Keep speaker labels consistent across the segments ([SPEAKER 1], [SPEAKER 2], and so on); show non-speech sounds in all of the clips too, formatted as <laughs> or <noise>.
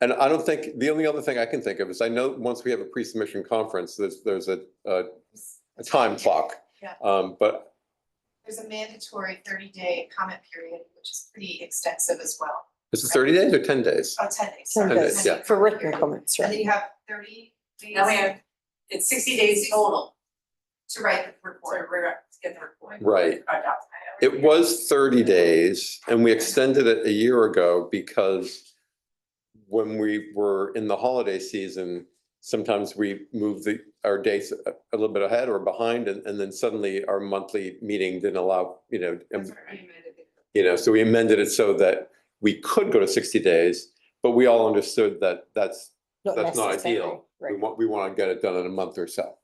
[SPEAKER 1] And I don't think, the only other thing I can think of is I know once we have a pre-submission conference, there's, there's a, a a time clock.
[SPEAKER 2] Yeah.
[SPEAKER 1] Um, but
[SPEAKER 2] There's a mandatory thirty day comment period, which is pretty extensive as well.
[SPEAKER 1] is it thirty days or ten days?
[SPEAKER 2] Oh, ten days.
[SPEAKER 3] Ten
[SPEAKER 2] sorry,
[SPEAKER 1] days, yeah.
[SPEAKER 3] For written comments,
[SPEAKER 2] And then
[SPEAKER 3] right?
[SPEAKER 2] you have thirty days
[SPEAKER 4] Now we have, it's sixty days total
[SPEAKER 2] to write the report.
[SPEAKER 4] for, we're, to get the report.
[SPEAKER 1] Right.
[SPEAKER 4] Our doc.
[SPEAKER 1] It was thirty days and we extended it a year ago because when we were in the holiday season, sometimes we moved the, our dates a, a little bit ahead or behind and, and then suddenly our monthly meeting didn't allow, you know, and
[SPEAKER 2] That's what we amended it.
[SPEAKER 1] you know, so we amended it so that we could go to sixty days, but we all understood that that's, that's not
[SPEAKER 3] necessary,
[SPEAKER 1] ideal. We
[SPEAKER 3] Right.
[SPEAKER 1] want, we want to get it done in a month or so.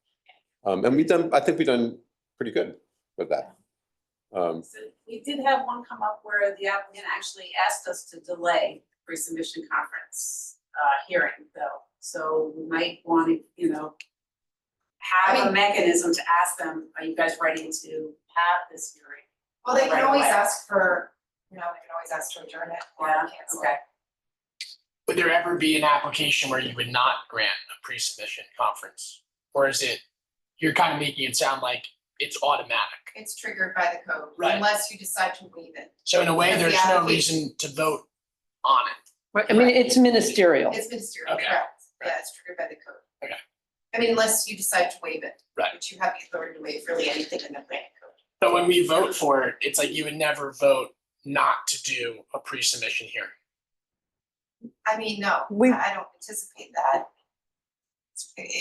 [SPEAKER 1] Um, and we've done, I think we've done pretty good with that. Um,
[SPEAKER 4] So we did have one come up where the applicant actually asked us to delay pre-submission conference, uh, hearing though. So we might want to, you know,
[SPEAKER 2] I
[SPEAKER 4] have a
[SPEAKER 2] mean-
[SPEAKER 4] mechanism to ask them, are you guys ready to have this hearing?
[SPEAKER 2] Well, they can
[SPEAKER 4] Right
[SPEAKER 2] always
[SPEAKER 4] away.
[SPEAKER 2] ask for, you know, they can always ask to adjourn it or
[SPEAKER 4] Yeah,
[SPEAKER 2] cancel
[SPEAKER 4] okay.
[SPEAKER 2] it.
[SPEAKER 5] Would there ever be an application where you would not grant a pre-submission conference? Or is it, you're kind of making it sound like it's automatic.
[SPEAKER 2] It's triggered by the code
[SPEAKER 5] Right.
[SPEAKER 2] unless you decide to waive it.
[SPEAKER 5] So in a way,
[SPEAKER 2] Because the
[SPEAKER 5] there's no
[SPEAKER 2] application-
[SPEAKER 5] reason to vote on it.
[SPEAKER 3] Right, I mean, it's ministerial.
[SPEAKER 2] It's ministerial,
[SPEAKER 5] Okay.
[SPEAKER 2] correct. Yeah, it's triggered by the code.
[SPEAKER 5] Okay.
[SPEAKER 2] I mean, unless you decide to waive it.
[SPEAKER 5] Right.
[SPEAKER 2] Which you have the authority to waive really anything in the planning code.
[SPEAKER 5] But when we vote for it, it's like you would never vote not to do a pre-submission hearing.
[SPEAKER 2] I mean, no,
[SPEAKER 3] We-
[SPEAKER 2] I I don't anticipate that.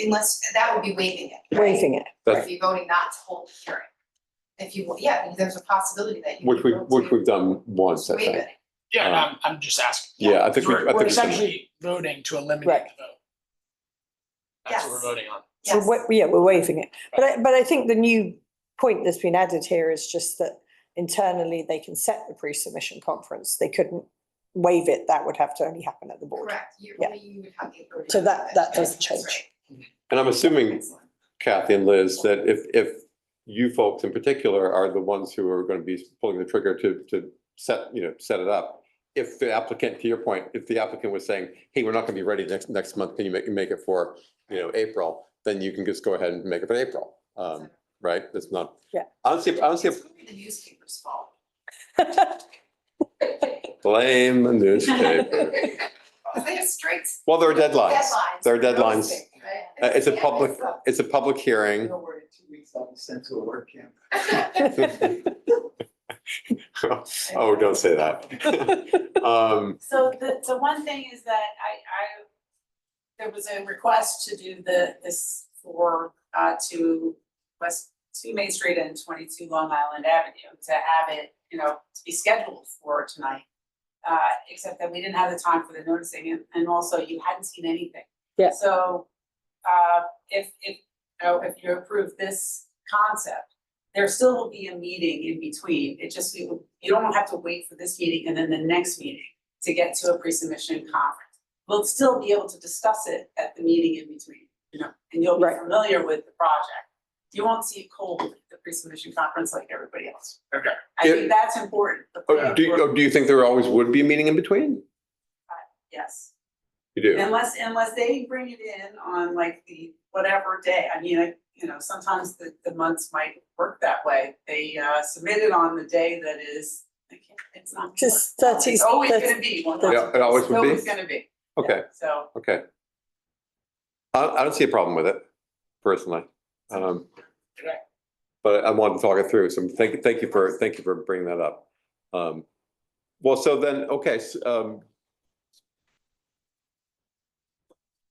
[SPEAKER 2] Unless, that would be waiving it, right?
[SPEAKER 3] Waiving it.
[SPEAKER 1] That's-
[SPEAKER 2] If you're voting not to hold the hearing. If you, yeah, because there's a possibility that you.
[SPEAKER 1] which we,
[SPEAKER 2] could vote
[SPEAKER 1] which
[SPEAKER 2] to
[SPEAKER 1] we've done once, I
[SPEAKER 2] Waive
[SPEAKER 1] think.
[SPEAKER 2] it.
[SPEAKER 5] Yeah, and I'm, I'm just asking.
[SPEAKER 1] Uh, Yeah, I think we- I
[SPEAKER 5] We're-
[SPEAKER 1] think
[SPEAKER 5] We're
[SPEAKER 1] we can-
[SPEAKER 5] essentially voting to eliminate
[SPEAKER 3] Right.
[SPEAKER 5] the vote. That's what we're
[SPEAKER 2] Yes.
[SPEAKER 5] voting on.
[SPEAKER 3] We're
[SPEAKER 2] Yes.
[SPEAKER 3] wa- Yeah, we're waiving it. But I, but I think the new point that's been added here is just that internally they can set the pre-submission conference. They couldn't waive it. That would have to only happen at the board.
[SPEAKER 2] Correct, you,
[SPEAKER 3] Yeah.
[SPEAKER 2] only you would have the authority.
[SPEAKER 3] So
[SPEAKER 2] to
[SPEAKER 3] that-
[SPEAKER 2] waive it.
[SPEAKER 3] that doesn't
[SPEAKER 2] That's right.
[SPEAKER 3] change.
[SPEAKER 1] And I'm assuming
[SPEAKER 2] Excellent.
[SPEAKER 1] Kathy and Liz, that if, if you folks in particular are the ones who are going to be pulling the trigger to, to set, you know, set it up. If the applicant, to your point, if the applicant was saying, hey, we're not going to be ready next, next month, can you make, make it for, you know, April? Then you can just go ahead and make it for April, um, right? That's not.
[SPEAKER 3] Yeah.
[SPEAKER 1] I don't see, I don't see
[SPEAKER 2] It's really the newspaper's fault.
[SPEAKER 1] a blame the newspaper.
[SPEAKER 2] They have strict
[SPEAKER 1] Well, there are deadlines.
[SPEAKER 2] deadlines.
[SPEAKER 1] There are
[SPEAKER 2] for real
[SPEAKER 1] deadlines.
[SPEAKER 2] estate, right?
[SPEAKER 1] Uh, it's a
[SPEAKER 2] Yeah,
[SPEAKER 1] public-
[SPEAKER 2] it's a-
[SPEAKER 1] It's a public hearing.
[SPEAKER 6] No worry, two weeks, I'll be sent to a work camp.
[SPEAKER 1] <laughs> Oh, don't say that. Um,
[SPEAKER 4] So the, the one thing is that I, I, there was a request to do the, this for, uh, to West, to Main Street and twenty-two Long Island Avenue to have it, you know, to be scheduled for tonight. Uh, except that we didn't have the time for the noticing and, and also you hadn't seen anything.
[SPEAKER 3] Yeah.
[SPEAKER 4] So, uh, if, if, you know, if you approve this concept, there still will be a meeting in between, it just, you, you don't have to wait for this meeting and then the next meeting to get to a pre-submission conference. We'll still be able to discuss it at the meeting in between, you know, and you'll be
[SPEAKER 3] Right.
[SPEAKER 4] familiar with the project. You won't see it cold at the pre-submission conference like everybody else.
[SPEAKER 5] Okay.
[SPEAKER 4] I
[SPEAKER 1] Yeah.
[SPEAKER 4] think that's important, the
[SPEAKER 1] Oh,
[SPEAKER 4] plan
[SPEAKER 1] do, you-
[SPEAKER 4] for-
[SPEAKER 1] oh, do you think there always would be a meeting in between?
[SPEAKER 4] yes.
[SPEAKER 1] You do?
[SPEAKER 4] Unless, unless they bring it in on like the whatever day, I mean, I, you know, sometimes the, the months might work that way. They, uh, submit it on the day that is, I can't, it's
[SPEAKER 3] <laughs>
[SPEAKER 4] not.
[SPEAKER 3] Just thirty,
[SPEAKER 4] It's always
[SPEAKER 3] that's-
[SPEAKER 4] gonna be one.
[SPEAKER 3] that's-
[SPEAKER 1] Yeah, it always
[SPEAKER 4] It's
[SPEAKER 1] would be.
[SPEAKER 4] always gonna be,
[SPEAKER 1] Okay,
[SPEAKER 4] so.
[SPEAKER 1] okay. I, I don't see a problem with it personally. Um,
[SPEAKER 5] Okay.
[SPEAKER 1] but I wanted to talk it through, so thank, thank you for, thank you for bringing that up. Um, well, so then, okay, s- um,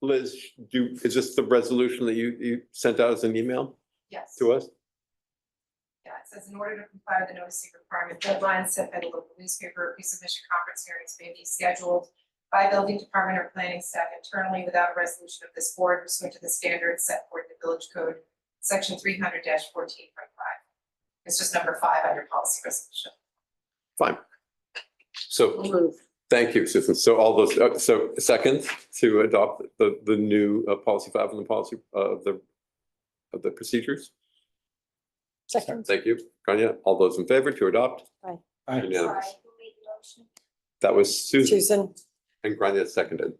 [SPEAKER 1] Liz, do, is this the resolution that you, you sent out as an email
[SPEAKER 2] Yes.
[SPEAKER 1] to us?
[SPEAKER 2] Yeah, it says in order to comply with the noticing requirement deadlines set by the local newspaper, pre-submission conference hearings may be scheduled by building department or planning staff internally without a resolution of this board pursuant to the standards set forth in the village code, section three hundred fourteen point five. It's just number five under policy resolution.
[SPEAKER 1] So Thank you, Susan. So all those, uh, so second to adopt the, the new uh, policy five and the policy uh, of the, of the procedures.
[SPEAKER 3] Second.
[SPEAKER 1] Thank you, Grania. All those in favor to adopt?
[SPEAKER 6] Aye.
[SPEAKER 1] Unanimous. That was Susan
[SPEAKER 3] Susan,
[SPEAKER 1] and Grania seconded.